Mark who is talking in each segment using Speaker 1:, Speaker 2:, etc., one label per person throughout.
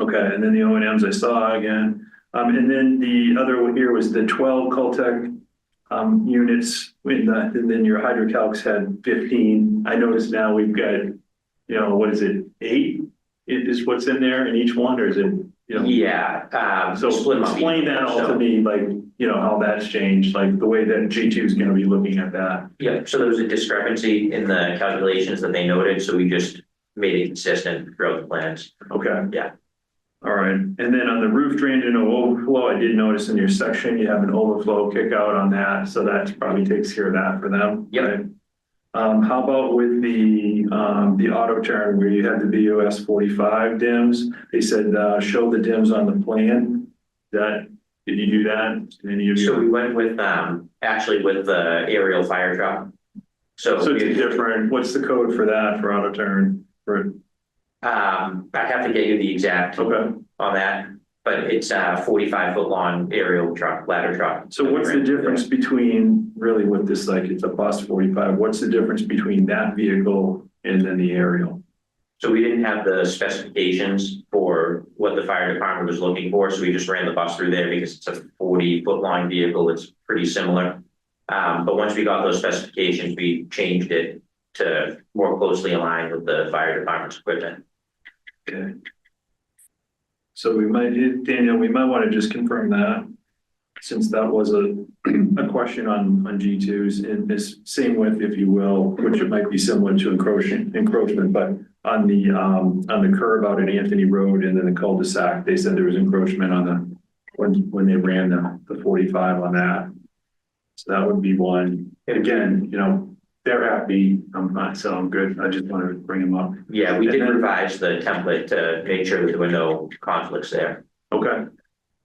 Speaker 1: Okay, and then the O and Ms I saw again, um, and then the other one here was the twelve Caltech. Um, units, in the- and then your hydrocalcs had fifteen, I noticed now we've got, you know, what is it, eight? It is what's in there in each one, or is it, you know?
Speaker 2: Yeah, um,
Speaker 1: So
Speaker 2: split 'em up
Speaker 1: explain that all to
Speaker 2: So-
Speaker 1: me, like, you know, how that's changed, like the way that G two is gonna be looking at that.
Speaker 2: Yeah, so there was a discrepancy in the calculations that they noted, so we just made it consistent throughout the plans.
Speaker 1: Okay.
Speaker 2: Yeah.
Speaker 1: All right, and then on the roof drain and overflow, I did notice in your section, you have an overflow kick out on that, so that probably takes care of that for them.
Speaker 2: Yep.
Speaker 1: right? Um, how about with the, um, the auto turn where you had the BOS forty-five dims? They said, uh, show the dims on the plan. That, did you do that? Did Any of
Speaker 2: So
Speaker 1: you?
Speaker 2: we went with, um, actually with the aerial fire truck. So.
Speaker 1: So it's
Speaker 2: we-
Speaker 1: different, what's the code for that for auto turn? For,
Speaker 2: Um, I have to get you the exact
Speaker 1: okay,
Speaker 2: on that, but it's a forty-five foot long aerial truck, ladder truck.
Speaker 1: so what's the difference between really what this like, it's a bus forty-five, what's the difference between that vehicle and then the aerial?
Speaker 2: So we didn't have the specifications for what the fire department was looking for, so we just ran the bus through there because it's a forty foot long vehicle, it's pretty similar. Um, but once we got those specifications, we changed it to more closely align with the fire department's equipment.
Speaker 1: Okay. So we might, Daniel, we might want to just confirm that, since that was a, a question on, on G twos in this same with, if you will, which it might be similar to encroachment, encroachment, but on the, um, on the curve out at Anthony Road and then the cul-de-sac, they said there was encroachment on the, when, when they ran the, the forty-five on that. So that would be one. And again, you know, they're happy, I'm not, so I'm good. I just wanted to bring them up.
Speaker 2: Yeah, we did
Speaker 1: And then-
Speaker 2: revise the template to make sure that there were no conflicts there.
Speaker 1: Okay.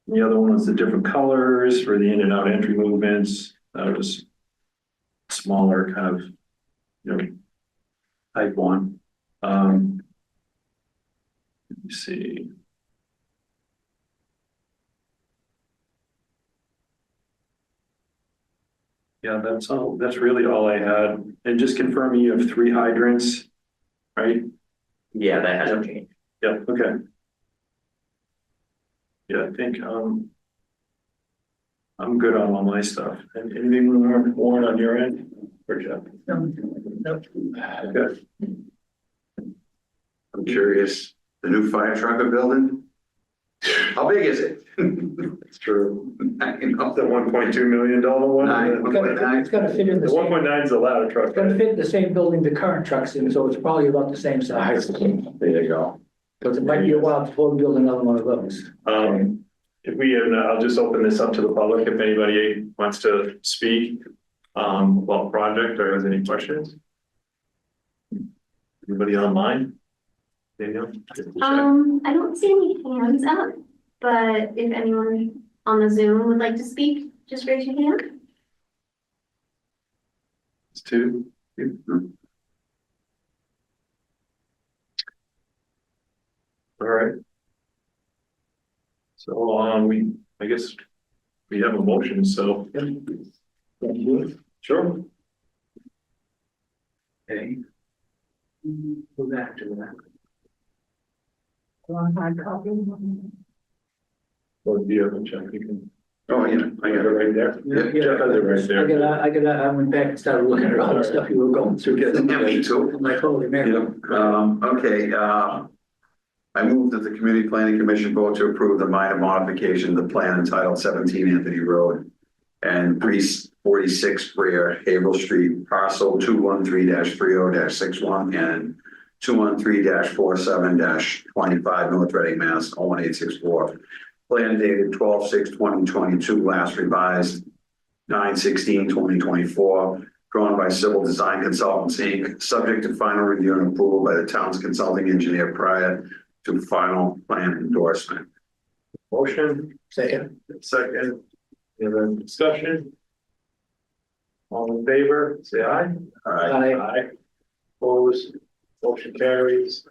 Speaker 1: The other one was the different colors for the in and out entry movements. That was smaller kind of, you know, type one. Um, let me see. Yeah, that's all, that's really all I had. And just confirming you have three hydrants, right?
Speaker 2: Yeah, that hasn't changed.
Speaker 1: Yeah, okay. Yeah, I think, um. I'm good on all my stuff. And Anything more, Warren, on your end? Or Jeff? Okay,
Speaker 3: I'm curious, the new fire truck they're building? How big is it?
Speaker 1: it's true.
Speaker 3: Nine,
Speaker 1: The one point two million dollar one?
Speaker 3: Nine,
Speaker 4: It's
Speaker 1: The
Speaker 3: okay.
Speaker 4: gotta, fit- it's gotta fit in the
Speaker 1: one
Speaker 4: same,
Speaker 1: point nine is a ladder
Speaker 4: it's
Speaker 1: truck,
Speaker 4: gotta
Speaker 1: right?
Speaker 4: fit in the same building the current truck's in, so it's probably about the same size.
Speaker 3: There you go.
Speaker 4: Because it might be a while before we build another one of those.
Speaker 1: Um, if we, and I'll just open this up to the public if anybody wants to speak. Um, about project or has any questions? Anybody online? Daniel?
Speaker 5: Um, I don't see any hands up, but if anyone on the Zoom would like to speak, just raise your hand.
Speaker 1: It's mm. two. All right. So, um, we, I guess we have a motion, so. Sure.
Speaker 3: Okay.
Speaker 4: Go back to that.
Speaker 1: Or do you have a check? You can,
Speaker 3: Oh, yeah,
Speaker 1: I got it right there.
Speaker 3: Yeah,
Speaker 1: Jeff has it right
Speaker 4: I
Speaker 1: there.
Speaker 4: got, I got, I went back and started looking at all the stuff you were going through.
Speaker 3: Yeah, me too.
Speaker 4: I'm Like, holy man.
Speaker 3: Yep, um, okay, uh. I move that the Community Planning Commission vote to approve the minor modification of the plan entitled seventeen Anthony Road. And pre forty-six Brier Havel Street, parcel two one three 30 61 and. Two one three 47 twenty-five North Reading, Mass, oh one eight six four. Plan dated 12-6-2022, last revised 9-16-2024 drawn by Civil Design Consultants, Inc., subject to final review and approval by the town's consulting engineer prior to final plan endorsement.
Speaker 1: Motion,
Speaker 4: Second.
Speaker 1: second, and then discussion. All in favor, say aye.
Speaker 3: All right,
Speaker 4: I,
Speaker 1: Aye. Opposed, motion carries.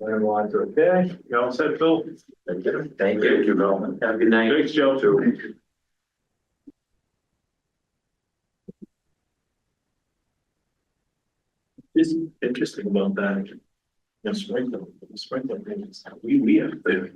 Speaker 1: And one to okay, you all set, Phil?
Speaker 2: Thank you. Thank
Speaker 3: thank
Speaker 2: you.
Speaker 3: you, Bill.
Speaker 2: Have a good night.
Speaker 1: Thanks, Joe. Is interesting about that. The sprinkler, the sprinkler, we, we have.